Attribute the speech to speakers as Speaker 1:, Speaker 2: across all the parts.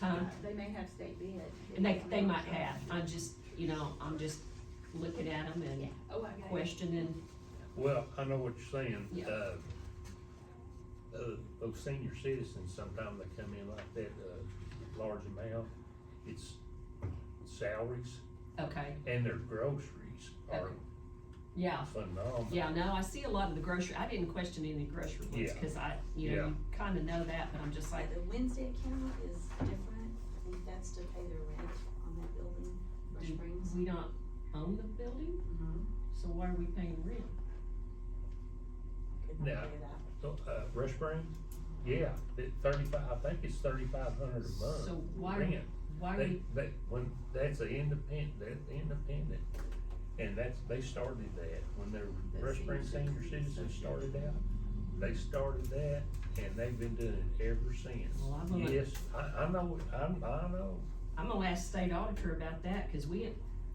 Speaker 1: Huh?
Speaker 2: They may have state bid.
Speaker 1: And they, they might have, I'm just, you know, I'm just looking at them and
Speaker 2: Oh, I got it.
Speaker 1: questioning,
Speaker 3: Well, I know what you're saying,
Speaker 1: Yeah.
Speaker 3: uh, uh, those senior citizens, sometimes they come in like that, uh, large amount, it's salaries
Speaker 1: okay,
Speaker 3: and their groceries are
Speaker 1: Okay. yeah.
Speaker 3: phenomenal.
Speaker 1: Yeah, no, I see a lot of the grocery, I didn't question any grocery ones,
Speaker 3: Yeah.
Speaker 1: cause I, you know,
Speaker 3: Yeah.
Speaker 1: you kinda know that, but I'm just like,
Speaker 4: The Wednesday account is different, I think that's to pay their rent on that building, Brush
Speaker 1: Do
Speaker 4: Springs.
Speaker 1: we don't own the building, so why are we paying rent?
Speaker 4: Could not
Speaker 3: Yeah.
Speaker 4: pay that.
Speaker 3: So, Uh, Rush Springs, yeah, it- thirty-five, I think it's thirty-five hundred a month.
Speaker 1: So why-
Speaker 3: rent.
Speaker 1: Why are
Speaker 3: They,
Speaker 1: we,
Speaker 3: they, when, that's an independent, that's independent, and that's, they started that, when their
Speaker 4: The
Speaker 3: Rush Springs
Speaker 4: senior
Speaker 3: Senior
Speaker 4: citizens
Speaker 3: Citizens started
Speaker 4: association.
Speaker 3: out, they started that, and they've been doing it ever since.
Speaker 1: Well, I'm gonna-
Speaker 3: Yes, I, I know, it. I'm, I know,
Speaker 1: I'm gonna ask state auditor about that, cause we,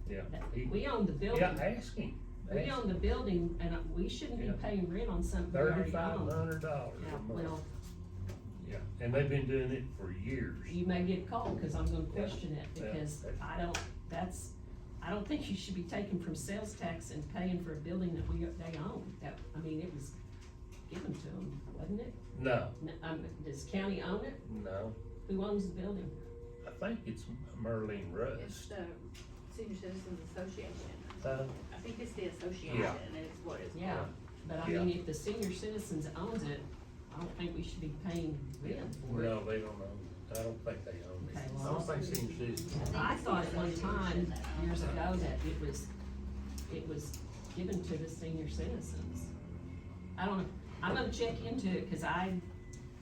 Speaker 3: yeah.
Speaker 1: that-
Speaker 3: He-
Speaker 1: we own the
Speaker 3: Yeah,
Speaker 1: building,
Speaker 3: ask him,
Speaker 1: we own the building, and uh, we shouldn't be
Speaker 3: Yeah.
Speaker 1: paying rent on something we already
Speaker 3: thirty-five
Speaker 1: own.
Speaker 3: hundred dollars
Speaker 1: Yeah,
Speaker 3: a month,
Speaker 1: well,
Speaker 3: yeah, and they've been doing it for years.
Speaker 1: you may get called, cause I'm gonna question it,
Speaker 3: Yeah.
Speaker 1: because I don't, that's, I don't think you should be taking from sales tax and paying for a building that we, they own, that, I mean, it was given to them, wasn't it?
Speaker 3: No,
Speaker 1: N- Um, does county own it?
Speaker 3: no,
Speaker 1: Who owns the building?
Speaker 3: I think it's Merlin
Speaker 2: It's
Speaker 3: Rust,
Speaker 2: the Senior Citizens Association.
Speaker 3: uh,
Speaker 2: I think it's the association and it's what it's.
Speaker 1: Yeah,
Speaker 3: Yeah.
Speaker 1: but I mean, if the senior citizens owns it, I don't think we should be paying rent for it.
Speaker 3: No, they don't own, I don't think they own
Speaker 1: Okay,
Speaker 3: it. I
Speaker 1: well,
Speaker 3: don't think senior citizens.
Speaker 1: I thought at one time, years ago, that it was, it was given to the senior citizens. I don't, know. I'm gonna check into it, cause I,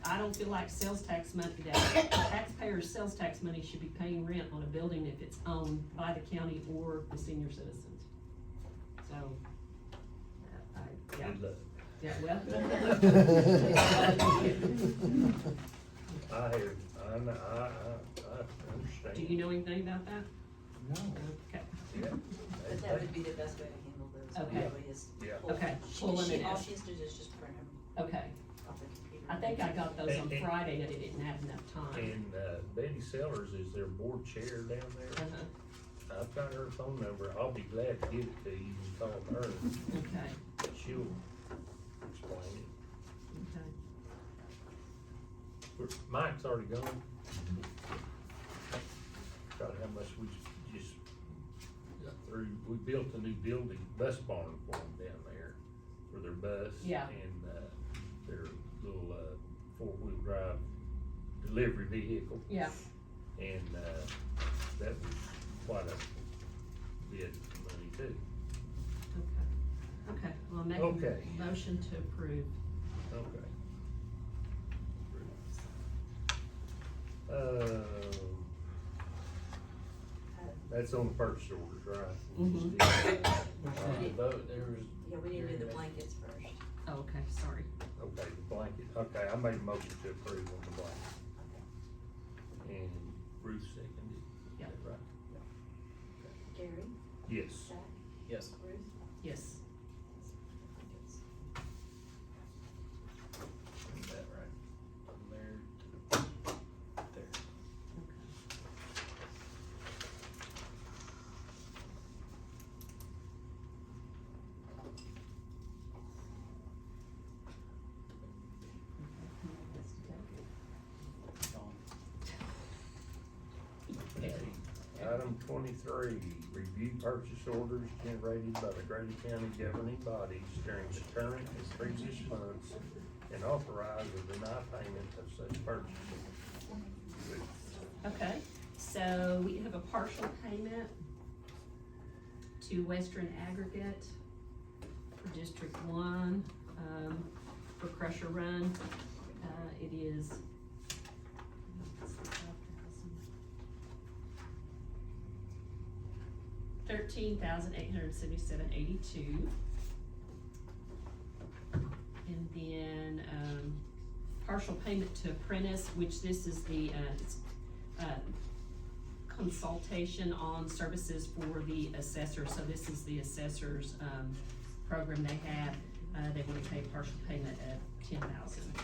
Speaker 1: I don't feel like sales tax money, that taxpayers' sales tax money should be paying rent on a building if it's owned by the county or the senior citizens. So, uh, I, yeah,
Speaker 3: Good luck.
Speaker 1: yeah, well.
Speaker 3: I have, I, know- I, I, I understand.
Speaker 1: Do you know anything about that?
Speaker 5: No.
Speaker 1: Okay,
Speaker 3: Yeah.
Speaker 4: But that would be the best way to handle those,
Speaker 1: Okay.
Speaker 4: probably is.
Speaker 3: Yeah.
Speaker 4: pull-
Speaker 1: Okay,
Speaker 4: she-
Speaker 1: pull them
Speaker 4: she-
Speaker 1: in
Speaker 4: All
Speaker 1: it.
Speaker 4: she has to do is just print them
Speaker 1: okay.
Speaker 4: off the computer.
Speaker 1: I think I got those on
Speaker 3: And- and-
Speaker 1: Friday, that I didn't have enough time.
Speaker 3: And, uh, Betty Sellers is their board chair down there.
Speaker 1: Uh-huh,
Speaker 3: I've got her phone number. I'll be glad to give it to you. You can call her.
Speaker 1: Okay,
Speaker 3: She'll explain it.
Speaker 1: okay.
Speaker 3: We're- Mike's already gone. God, how much we j- just got through. We built a new building, bus barn for them down there for their bus.
Speaker 1: Yeah.
Speaker 3: And, uh, their little, uh, four-wheel drive delivery vehicle.
Speaker 1: Yeah,
Speaker 3: And, uh, that was quite a bit of money too.
Speaker 1: okay. Okay, well, I'm making
Speaker 3: Okay.
Speaker 1: a motion to approve.
Speaker 3: Okay. Uh,
Speaker 4: Uh,
Speaker 3: that's on the purchase orders, right?
Speaker 1: Mhm.
Speaker 5: We had a vote, there was.
Speaker 4: Yeah, we need to do the blankets first.
Speaker 1: Oh, Okay, sorry.
Speaker 3: Okay, the blanket, okay, I made a motion to approve on the blanket. And Ruth seconded. Is
Speaker 1: Yeah.
Speaker 3: that Right?
Speaker 4: Gary,
Speaker 3: Yes.
Speaker 4: Zach,
Speaker 5: Yes.
Speaker 4: Ruth.
Speaker 1: Yes,
Speaker 4: blankets.
Speaker 5: Is that right? From there to there.
Speaker 1: okay.
Speaker 5: Gone.
Speaker 3: Okay. Item twenty-three, review purchase orders generated by the Grady County governing bodies during the current and previous months and authorize or deny payment of such purchase orders.
Speaker 1: Okay, so we have a partial payment to Western Aggregate for District One, um, for Crusher Run. Uh, it is. Thirteen thousand eight hundred seventy-seven eighty-two. And then, um, partial payment to Apprentice, which this is the, uh, it's uh, consultation on services for the assessor. So this is the assessor's, um, program they have. Uh, they want to pay partial payment of ten thousand.